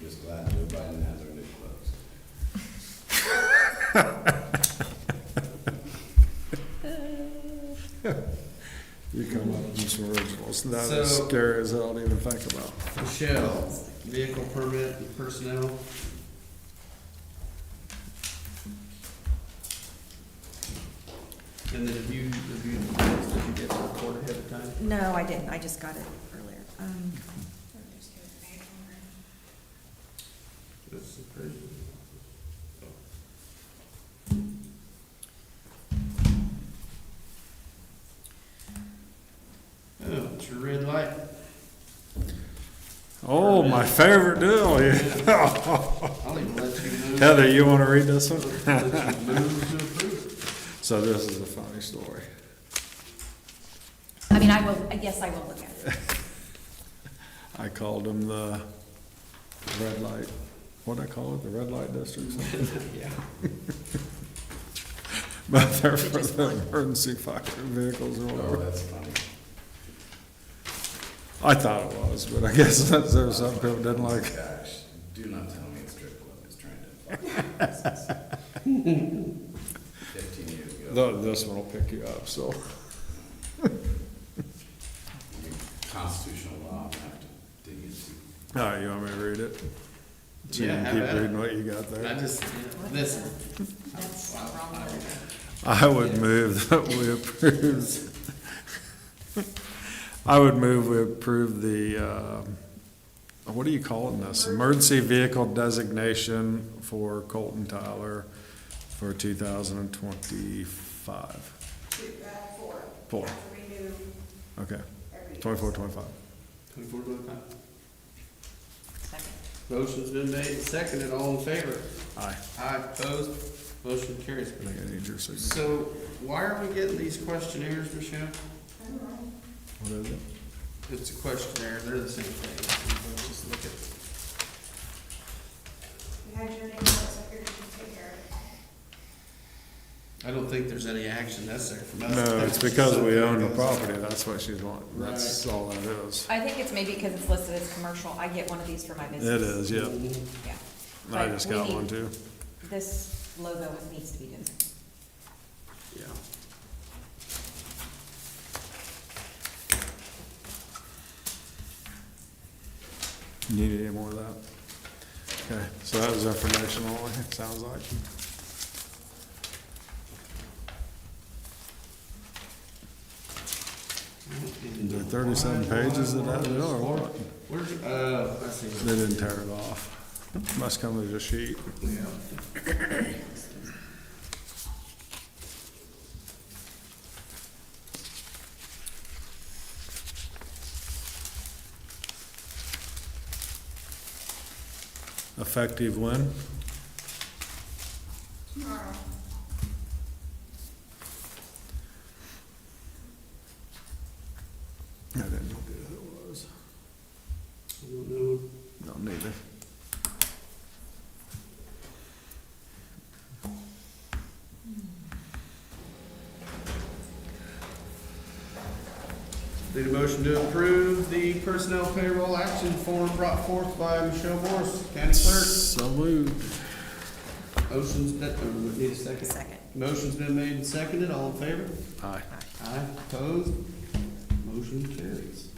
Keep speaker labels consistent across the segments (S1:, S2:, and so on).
S1: Just glad Joe Biden has our new clothes.
S2: You come up with some originals. That is
S1: So-
S2: scary as hell to even think about.
S1: Michelle, vehicle permit and personnel. And then have you reviewed the minutes that you get to record ahead of time?
S3: No, I didn't, I just got it earlier. Um,
S1: That's the crazy. Oh, it's your red light.
S2: Oh, my favorite deal. yeah.
S1: I'll even let you move.
S2: Heather, you want to read this one?
S1: Let you move to approve.
S2: So this is a funny story.
S3: I mean, I will, I guess I will look at it.
S2: I called them the red light, what I call it, the red light district? something?
S1: Yeah.
S2: But they're for the emergency fire vehicles or whatever.
S1: Oh, that's funny.
S2: I thought it was, but I guess that's, there were some people didn't like it.
S1: Gosh, do not tell me a strip club is trying to. Fifteen years ago,
S2: Though This one will pick you up, so.
S1: constitutional law, I have to dig into.
S2: All right, you want me to read it? So you
S1: Yeah,
S2: can
S1: how
S2: keep
S1: about it?
S2: reading what you got there.
S1: I just, listen,
S3: That's the wrong one.
S2: I would move that we approve. I would move we approve the, um, what are you calling this? Emergency vehicle designation for Colton Tyler for two thousand and twenty-five.
S4: Four.
S2: Four.
S4: Renew
S2: Okay,
S4: every.
S2: twenty-four, twenty-five.
S1: twenty-four to five.
S3: Second.
S1: Motion's been made and seconded, all in favor?
S2: Aye.
S1: Aye, opposed, motion carries.
S2: I think I need your signature.
S1: So why are we getting these questionnaires, Michelle?
S2: What is it?
S1: It's a questionnaire, they're the same thing. Let's Just look at,
S4: You had your name, so I figured you take care of
S1: I don't think there's any action necessary from us.
S2: No, it's because we own the property, that's what she's wanting,
S1: Right.
S2: that's all that is.
S3: I think it's maybe because it's listed as commercial, I get one of these for my
S2: It
S3: business.
S2: is, yeah,
S3: Yeah.
S2: I
S3: But
S2: just
S3: we
S2: got
S3: need-
S2: one too.
S3: This logo needs to be different.
S1: Yeah.
S2: You Need any more of that? Okay, so that was information only, it sounds like. Is there thirty-seven pages of that deal or what?
S1: Where's, uh, I see.
S2: They didn't tear it off. Must come as a sheet.
S1: Yeah.
S2: Effective when?
S4: tomorrow.
S2: I didn't know who it was.
S1: I don't know.
S2: No, neither.
S1: Need a motion to approve the personnel payroll action form brought forth by Michelle Morris, county clerk.
S2: So moved.
S1: Motion's been, uh, we need a second.
S3: Second.
S1: Motion's been made and seconded, all in favor?
S2: Aye.
S1: Aye, opposed? Motion carries.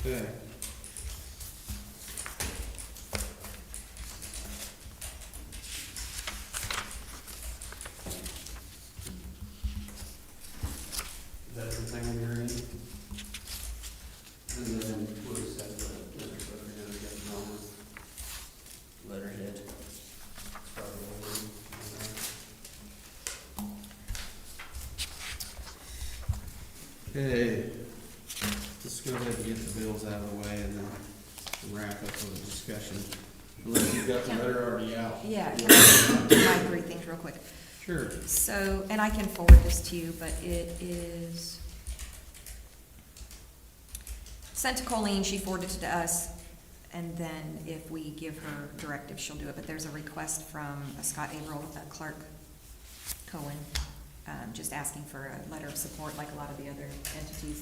S1: Okay. Is that everything on your end? And then we'll just have to, let it go together, get it on with letterhead. Okay, let's go ahead and get the bills out of the way and then wrap up the discussion. Unless you've got the letter already out.
S3: Yeah, can I do my three things real quick.
S1: Sure.
S3: So, and I can forward this to you, but it is sent to Colleen, she forwarded it to us, and then if we give her directive, she'll do it. But there's a request from Scott Averill, uh, Clark Cohen, um, just asking for a letter of support like a lot of the other entities